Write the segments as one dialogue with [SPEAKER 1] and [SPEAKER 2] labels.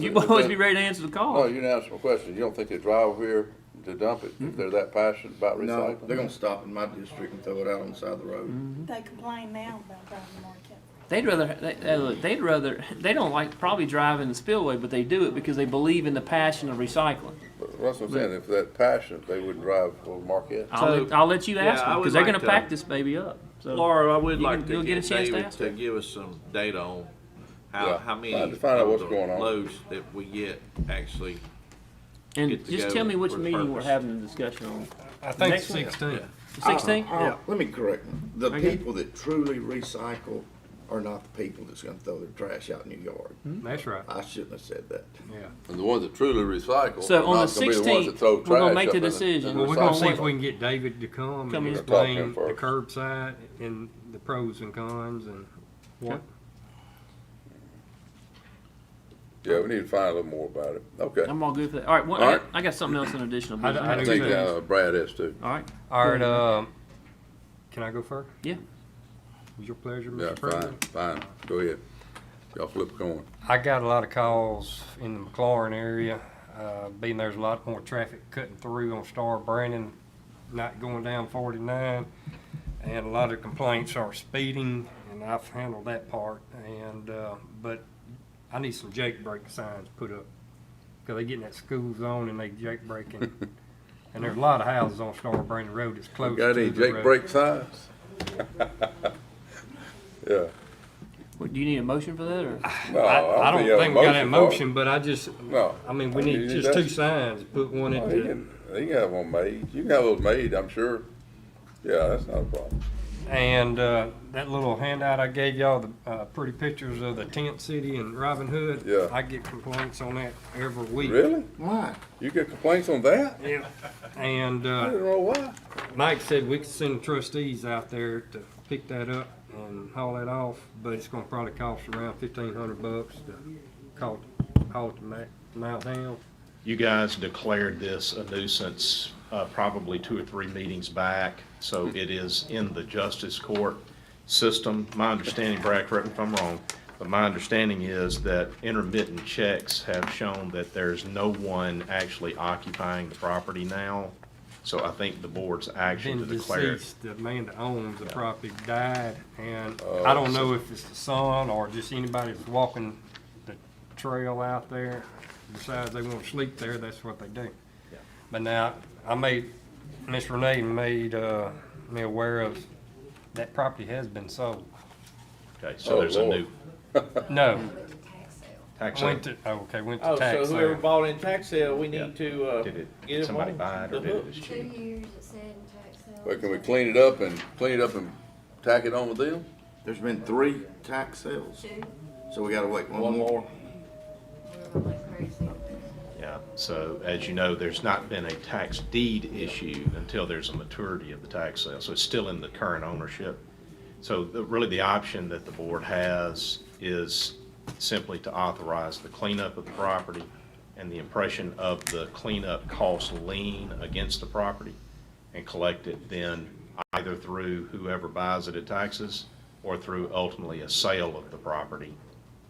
[SPEAKER 1] You
[SPEAKER 2] if
[SPEAKER 1] will always
[SPEAKER 2] they-
[SPEAKER 1] be ready to answer the
[SPEAKER 2] No,
[SPEAKER 1] call.
[SPEAKER 2] Oh, you can ask my question. You don't think they drive over here to dump it if they're that passionate about
[SPEAKER 3] No,
[SPEAKER 2] recycling?
[SPEAKER 3] they're gonna stop in my district and throw it out on the side of the road.
[SPEAKER 4] They complain now about driving market.
[SPEAKER 1] They'd rather, they, they- look, they'd rather, they don't like probably driving the spillway, but they do it because they believe in the passion of recycling.
[SPEAKER 2] But That's what I'm saying. If they're that passionate, they wouldn't drive over Marquette.
[SPEAKER 5] Uh,
[SPEAKER 1] I'll,
[SPEAKER 6] So-
[SPEAKER 1] let- I'll let you
[SPEAKER 6] Yeah,
[SPEAKER 1] ask
[SPEAKER 6] I
[SPEAKER 1] them,
[SPEAKER 6] would
[SPEAKER 1] because they're
[SPEAKER 6] like
[SPEAKER 1] gonna
[SPEAKER 6] to-
[SPEAKER 1] pack this baby up. So-
[SPEAKER 6] Laura, I would
[SPEAKER 1] You
[SPEAKER 6] like
[SPEAKER 1] can-
[SPEAKER 6] to
[SPEAKER 1] you'll get a
[SPEAKER 6] get
[SPEAKER 1] chance to
[SPEAKER 6] David
[SPEAKER 1] ask
[SPEAKER 6] to
[SPEAKER 1] her.
[SPEAKER 6] give us some data on how,
[SPEAKER 2] Yeah,
[SPEAKER 6] how many
[SPEAKER 2] find- find out
[SPEAKER 6] of
[SPEAKER 2] what's
[SPEAKER 6] the
[SPEAKER 2] going on.
[SPEAKER 6] loads that we get actually.
[SPEAKER 1] And
[SPEAKER 6] get
[SPEAKER 1] just
[SPEAKER 6] together
[SPEAKER 1] tell me which
[SPEAKER 6] for the
[SPEAKER 1] meeting we're
[SPEAKER 6] purpose.
[SPEAKER 1] having the discussion on.
[SPEAKER 5] I think
[SPEAKER 1] Next one.
[SPEAKER 5] sixteen.
[SPEAKER 1] Sixteen?
[SPEAKER 3] Uh, uh, Let me correct, you. the
[SPEAKER 1] Okay.
[SPEAKER 3] people that truly recycle are not the people that's gonna throw their trash out in your yard.
[SPEAKER 5] That's right.
[SPEAKER 3] I shouldn't have said that.
[SPEAKER 5] Yeah.
[SPEAKER 2] And the ones that truly recycle
[SPEAKER 1] So
[SPEAKER 2] are
[SPEAKER 1] on the
[SPEAKER 2] not gonna be the ones that
[SPEAKER 1] 16th,
[SPEAKER 2] throw
[SPEAKER 1] we're gonna
[SPEAKER 2] trash
[SPEAKER 1] make
[SPEAKER 2] up
[SPEAKER 1] the
[SPEAKER 2] in in
[SPEAKER 1] decision.
[SPEAKER 5] Well, we're gonna see if
[SPEAKER 2] recycle.
[SPEAKER 5] we can get David to come
[SPEAKER 1] Come
[SPEAKER 5] and
[SPEAKER 1] here.
[SPEAKER 5] explain the
[SPEAKER 2] Talk to
[SPEAKER 5] curbside and the pros and cons and what.
[SPEAKER 2] Yeah, we need to find a little more about it. Okay.
[SPEAKER 1] I'm all good for that. All right, one,
[SPEAKER 2] All
[SPEAKER 1] I,
[SPEAKER 2] right.
[SPEAKER 1] got, I got something else in additional
[SPEAKER 5] I d- I
[SPEAKER 2] I
[SPEAKER 1] business.
[SPEAKER 5] do-
[SPEAKER 2] think uh, Brad has to.
[SPEAKER 1] All right,
[SPEAKER 5] All right, um, can I go first?
[SPEAKER 1] Yeah.
[SPEAKER 5] Was your pleasure,
[SPEAKER 2] Yeah,
[SPEAKER 5] Mr.
[SPEAKER 2] fine,
[SPEAKER 5] President?
[SPEAKER 2] fine. Go ahead. Y'all flip a coin.
[SPEAKER 5] I got a lot of calls in the McLaurin area, uh, being there's a lot more traffic cutting through on Star Brandon, not going down forty-nine. And a lot of complaints are speeding, and I've handled that part, and, uh, but I need some jake brake signs put up. Cause they get in that school zone and they jake braking, and there's a lot of houses on Star Brandon Road that's close to
[SPEAKER 2] Got
[SPEAKER 5] the
[SPEAKER 2] any Jake
[SPEAKER 5] road.
[SPEAKER 2] break signs? Yeah.
[SPEAKER 1] What, do you need a motion for that, or?
[SPEAKER 2] No, uh,
[SPEAKER 5] I, I
[SPEAKER 2] think
[SPEAKER 5] don't
[SPEAKER 2] you have a
[SPEAKER 5] think we got that
[SPEAKER 2] for it.
[SPEAKER 5] motion, but I just,
[SPEAKER 2] No.
[SPEAKER 5] I mean, we
[SPEAKER 2] I mean,
[SPEAKER 5] need
[SPEAKER 2] you
[SPEAKER 5] just two
[SPEAKER 2] just-
[SPEAKER 5] signs, put one
[SPEAKER 2] Oh,
[SPEAKER 5] at
[SPEAKER 2] You
[SPEAKER 5] the,
[SPEAKER 2] can, you can have one made. You can have those made, I'm sure. Yeah, that's not a problem.
[SPEAKER 5] and, uh, that little handout I gave y'all, the, uh, pretty pictures of the tent city and Robin Hood.
[SPEAKER 2] Yeah.
[SPEAKER 5] I get complaints on that every week.
[SPEAKER 2] Really?
[SPEAKER 3] Why?
[SPEAKER 2] You get complaints on that?
[SPEAKER 5] Yeah, and,
[SPEAKER 2] I
[SPEAKER 5] uh,
[SPEAKER 2] don't know why.
[SPEAKER 5] Mike said we could send trustees out there to pick that up and haul that off, but it's gonna probably cost around fifteen hundred bucks to call, haul it to Ma- Mount Hill.
[SPEAKER 7] You guys declared this a nuisance uh, probably two or three meetings back, so
[SPEAKER 2] Hmm.
[SPEAKER 7] it is in the justice court system. My understanding, Brad, correct me if I'm wrong, but my understanding is that intermittent checks have shown that there's no one actually occupying the property now. So I think the board's action to
[SPEAKER 5] Been
[SPEAKER 7] declare it
[SPEAKER 5] deceased, the man that owns the property died, and
[SPEAKER 6] Uh,
[SPEAKER 5] I don't know if it's the son or just anybody that's walking the trail out there, decides they wanna sleep there, that's what they do. But now, I made, Miss Renee made, uh, me aware of, that property has been sold.
[SPEAKER 7] Okay, so
[SPEAKER 2] Oh,
[SPEAKER 7] there's a
[SPEAKER 2] Lord.
[SPEAKER 7] new
[SPEAKER 5] No,
[SPEAKER 7] tax.
[SPEAKER 5] went to, oh, okay, went
[SPEAKER 6] Oh,
[SPEAKER 5] to
[SPEAKER 6] so
[SPEAKER 5] tax
[SPEAKER 6] whoever
[SPEAKER 5] sale.
[SPEAKER 6] bought in tax sale, we
[SPEAKER 7] Yeah.
[SPEAKER 6] need to, uh,
[SPEAKER 7] Did it,
[SPEAKER 6] get
[SPEAKER 7] did
[SPEAKER 6] them
[SPEAKER 7] somebody
[SPEAKER 6] on
[SPEAKER 7] buy it
[SPEAKER 6] the
[SPEAKER 7] or did it
[SPEAKER 6] hook.
[SPEAKER 7] this
[SPEAKER 8] Two
[SPEAKER 7] cheap?
[SPEAKER 8] years it said in tax sale.
[SPEAKER 2] But can we clean it up and, clean it up and tack it on with them?
[SPEAKER 3] There's been three tax sales,
[SPEAKER 8] Two,
[SPEAKER 3] so we gotta wait one
[SPEAKER 6] One
[SPEAKER 3] more.
[SPEAKER 6] more.
[SPEAKER 8] we're going like crazy.
[SPEAKER 7] Yeah, so as you know, there's not been a tax deed issue until there's a maturity of the tax sale, so it's still in the current ownership. So the- really, the option that the board has is simply to authorize the cleanup of the property and the impression of the cleanup cost lien against the property and collect it then either through whoever buys it at taxes or through ultimately a sale of the property.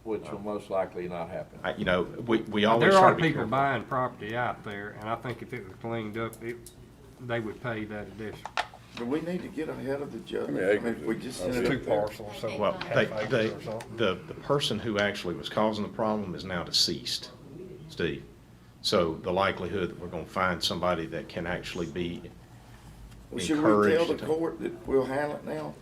[SPEAKER 6] Which will most likely not happen.
[SPEAKER 7] I- You know, we, we always
[SPEAKER 5] There are
[SPEAKER 7] try to be
[SPEAKER 5] people
[SPEAKER 7] careful.
[SPEAKER 5] buying property out there, and I think if it was cleaned up, it, they would pay that addition.
[SPEAKER 3] But we need to get ahead of the judge. I
[SPEAKER 2] How many
[SPEAKER 3] mean,
[SPEAKER 2] acres
[SPEAKER 3] if we
[SPEAKER 2] is it?
[SPEAKER 3] just
[SPEAKER 2] Oh,
[SPEAKER 3] send
[SPEAKER 2] it's
[SPEAKER 3] it
[SPEAKER 2] two
[SPEAKER 3] up there.
[SPEAKER 5] parcels,
[SPEAKER 7] Well, they,
[SPEAKER 5] half acres
[SPEAKER 7] they,
[SPEAKER 5] or something.
[SPEAKER 7] the, the person who actually was causing the problem is now deceased, Steve. So the likelihood that we're gonna find somebody that can actually be,
[SPEAKER 3] Well, Should we tell the
[SPEAKER 7] encouraged to-
[SPEAKER 3] court that we'll handle it now?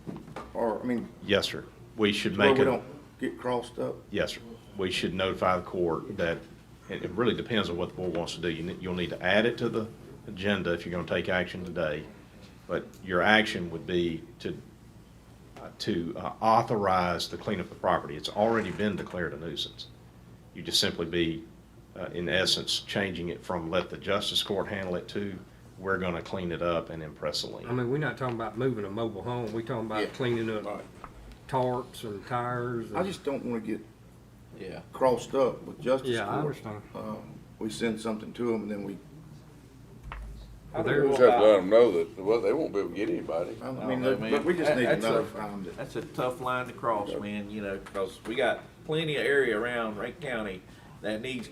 [SPEAKER 3] Or, I mean,
[SPEAKER 7] yes, sir, we should
[SPEAKER 3] where
[SPEAKER 7] make
[SPEAKER 3] we
[SPEAKER 7] a,
[SPEAKER 3] don't get crossed up?
[SPEAKER 7] yes, sir. We should notify the court that, it, it really depends on what the board wants to do. You, ne- you'll need to add it to the agenda if you're gonna take action today. But your action would be to, uh, to uh, authorize the cleanup of property. It's already been declared a nuisance. You just simply be, uh, in essence, changing it from let the justice court handle it to, we're gonna clean it up and impress a
[SPEAKER 5] I
[SPEAKER 7] lien.
[SPEAKER 5] mean, we're not talking about moving a mobile home, we're talking
[SPEAKER 3] Yeah.
[SPEAKER 5] about cleaning up
[SPEAKER 3] Right.
[SPEAKER 5] tarps and tires
[SPEAKER 3] I
[SPEAKER 5] and,
[SPEAKER 3] just don't wanna get
[SPEAKER 6] Yeah.
[SPEAKER 3] crossed up with justice
[SPEAKER 5] yeah, I
[SPEAKER 3] court.
[SPEAKER 5] understand.
[SPEAKER 3] Uh, We send something to them and then we,
[SPEAKER 6] I
[SPEAKER 5] There-
[SPEAKER 2] We
[SPEAKER 6] think
[SPEAKER 2] just
[SPEAKER 6] we'll
[SPEAKER 2] have to
[SPEAKER 6] buy-
[SPEAKER 2] let them know that, well, they won't be able to get anybody.
[SPEAKER 3] I
[SPEAKER 6] No,
[SPEAKER 3] mean,
[SPEAKER 6] no,
[SPEAKER 3] look,
[SPEAKER 6] man.
[SPEAKER 3] look, we just need to
[SPEAKER 6] That's a-
[SPEAKER 3] notify them that
[SPEAKER 6] That's a tough line to cross, man, you know, because we got plenty of area around Rankin County that needs